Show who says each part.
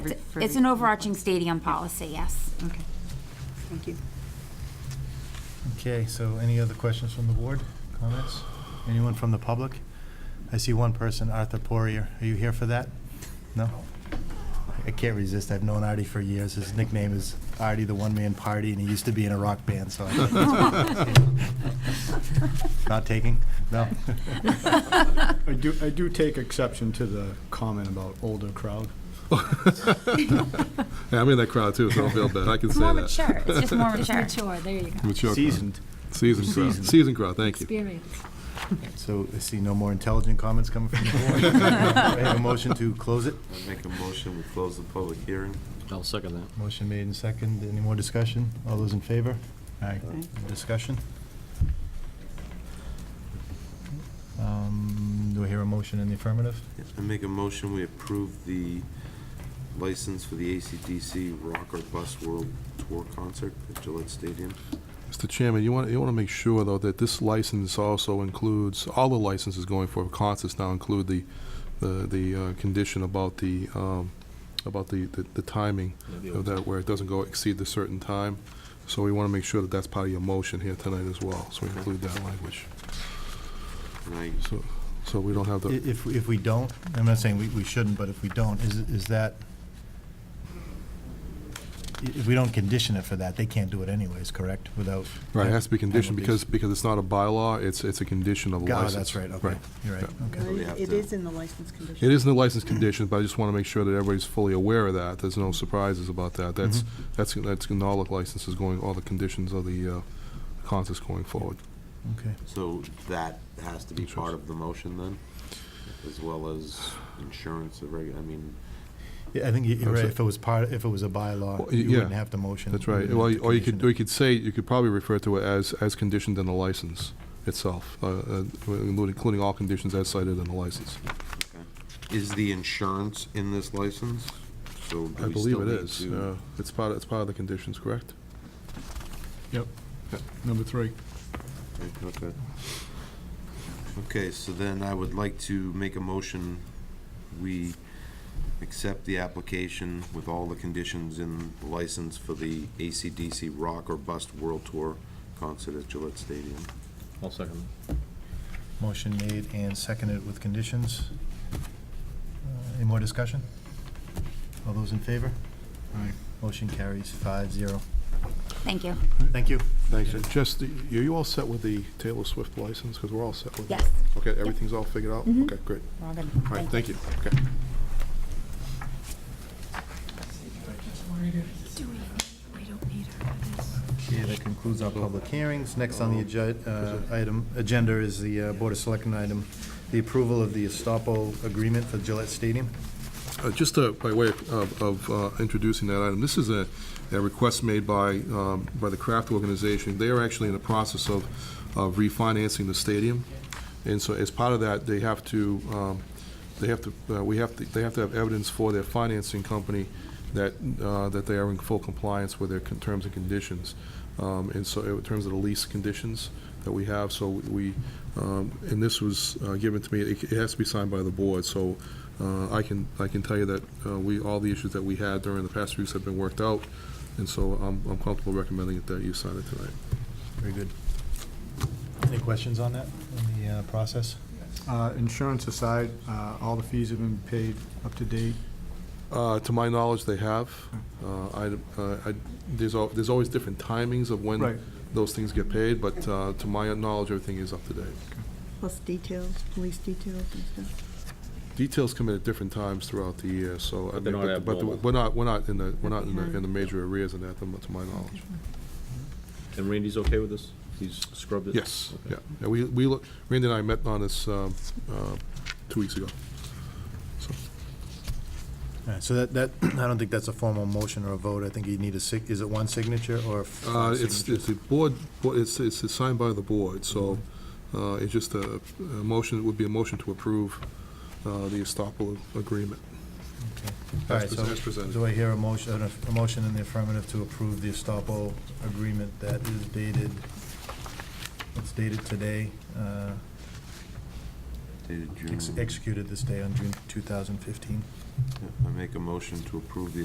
Speaker 1: for- for-
Speaker 2: It's an overarching stadium policy, yes.
Speaker 1: Okay, thank you.
Speaker 3: Okay, so any other questions from the board, comments? Anyone from the public? I see one person, Arthur Poirier. Are you here for that? No? I can't resist. I've known Artie for years. His nickname is Artie the One Man Party, and he used to be in a rock band, so. Not taking? No?
Speaker 4: I do, I do take exception to the comment about older crowd.
Speaker 5: Yeah, I'm in that crowd too, so I don't feel bad. I can say
Speaker 2: More
Speaker 5: that.
Speaker 2: mature, it's just more mature.
Speaker 6: Mature, there you go.
Speaker 5: Mature crowd.
Speaker 4: Seasoned.
Speaker 5: Seasoned crowd.
Speaker 4: Seasoned.
Speaker 5: Seasoned crowd, thank you.
Speaker 6: Experience.
Speaker 3: So I see no more intelligent comments coming from the board. Do I have a motion to close it.
Speaker 7: I make a motion, we close the public hearing.
Speaker 8: I'll second that.
Speaker 3: Motion made and second. Any more discussion? All those in favor? Aye. Discussion? Um, Do I hear a motion in the affirmative?
Speaker 7: I make a motion, we approve the license for the ACDC Rock or Bus World Tour Concert at Gillette Stadium.
Speaker 5: Mr. Chairman, you want, you want to make sure though that this license also includes, all the licenses going for concerts now include the, the, the uh, condition about the, um, about the, the- the timing of that, where it doesn't go exceed the certain time. So we want to make sure that that's part of your motion here tonight as well, so we include that language.
Speaker 7: And I,
Speaker 5: So, so we don't have
Speaker 3: I-
Speaker 5: the,
Speaker 3: If, if we don't, I'm not saying we, we shouldn't, but if we don't, is, is that, i- if we don't condition it for that, they can't do it anyways, correct? Without.
Speaker 5: right, it has to be conditioned
Speaker 3: penalties.
Speaker 5: because, because it's not a bylaw, it's, it's a condition of a
Speaker 3: Ah,
Speaker 5: license.
Speaker 3: that's right, okay. You're right, okay.
Speaker 7: we have
Speaker 1: It
Speaker 7: to-
Speaker 1: is in the license condition.
Speaker 5: It is in the license conditions, but I just want to make sure that everybody's fully aware of that. There's no surprises about that. That's, that's, that's in all the licenses going, all the conditions of the uh, concerts going forward.
Speaker 3: Mm-hmm. Okay.
Speaker 7: so that has to be part of the motion then, as well as insurance, of reg- I mean,
Speaker 3: Yeah, I think you- you're right.
Speaker 5: Absolutely.
Speaker 3: If it was part, if it was a
Speaker 5: Well,
Speaker 3: bylaw,
Speaker 5: y-
Speaker 3: you
Speaker 5: yeah.
Speaker 3: wouldn't have to motion.
Speaker 5: That's right.
Speaker 7: Mm-hmm.
Speaker 3: wouldn't
Speaker 5: Well,
Speaker 3: have to
Speaker 5: or you
Speaker 3: condition
Speaker 5: could,
Speaker 3: it.
Speaker 5: or you could say, you could probably refer to it as, as conditioned in the license itself, uh, uh, including including all conditions as cited in the license.
Speaker 7: is the insurance in this license? So do
Speaker 5: I
Speaker 7: we
Speaker 5: believe
Speaker 7: still
Speaker 5: it
Speaker 7: need
Speaker 5: is.
Speaker 7: to-
Speaker 5: Uh, It's part, it's part of the conditions, correct?
Speaker 4: Yep, number three.
Speaker 7: Okay. Okay, so then I would like to make a motion, we accept the application with all the conditions in the license for the ACDC Rock or Bust World Tour concert at Gillette Stadium.
Speaker 8: I'll second that.
Speaker 3: Motion made and seconded with conditions. Uh, Any more discussion? All those in favor?
Speaker 4: Aye.
Speaker 3: Motion carries five zero.
Speaker 2: Thank you.
Speaker 3: Thank you.
Speaker 5: Thanks. Just, the- are you all set with the Taylor Swift license? Because we're all set with that.
Speaker 2: Yes.
Speaker 5: Okay, everything's all figured out? Okay, great.
Speaker 2: We're all good.
Speaker 5: All right,
Speaker 2: Thank you.
Speaker 5: thank you. Okay.
Speaker 3: Okay, that concludes our public hearings. Next on the agi- uh, item, agenda is the uh, Board of Selectmen item, the approval of the Estapo agreement for Gillette Stadium.
Speaker 5: Uh, Just uh, by way of- of uh, introducing that item, this is a a request made by, um, by the Kraft Organization. They are actually in the process of of refinancing the stadium, and so as part of that, they have to, um, they have to, uh, we have, to they have to have evidence for their financing company that, uh, that they are in full compliance with their con- terms and conditions. Um, And so in terms of the lease conditions that we have, so we, um, and this was uh, given to me, it it has to be signed by the board, so uh, I can, I can tell you that uh, we, all the issues that we had during the past weeks have been worked out, and so I'm I'm comfortable recommending that you sign it tonight.
Speaker 3: Very good. Any questions on that, on the uh, process?
Speaker 4: Uh, Insurance aside, uh, all the fees have been paid up to date.
Speaker 5: Uh, To my knowledge, they have. Uh, I, uh, I- there's, al- there's always different timings of
Speaker 4: Right.
Speaker 5: when those things get paid, but uh, to my knowledge, everything is up to date.
Speaker 1: Plus details, police details and stuff.
Speaker 5: Details come in at different times throughout the year, so. I
Speaker 8: But they're
Speaker 5: mean,
Speaker 8: not
Speaker 5: but
Speaker 8: abnormal.
Speaker 5: We're not, we're not in the, we're not in the, in the major arrears in that, to my- to my knowledge.
Speaker 8: And Randy's okay with this? He's scrubbed it?
Speaker 5: Yes,
Speaker 8: Okay.
Speaker 5: yeah. And we, we, look- Randy and I met on this um, uh, two weeks ago. So,
Speaker 3: All right, so that, that, I don't think that's a formal motion or a vote. I think you need a sig, is it one signature or
Speaker 5: uh,
Speaker 3: five
Speaker 5: It's,
Speaker 3: signatures?
Speaker 5: it's the board, board- it's, it's signed by the board, so uh, it's just a a motion, it would be a motion to approve uh, the Estapo agreement.
Speaker 3: All right, so
Speaker 5: As presented.
Speaker 3: do I hear a motion, a motion in the affirmative to approve the Estapo agreement that is dated, it's dated today, uh,
Speaker 7: dated June.
Speaker 3: ex- executed this day on June 2015.
Speaker 7: I make a motion to approve the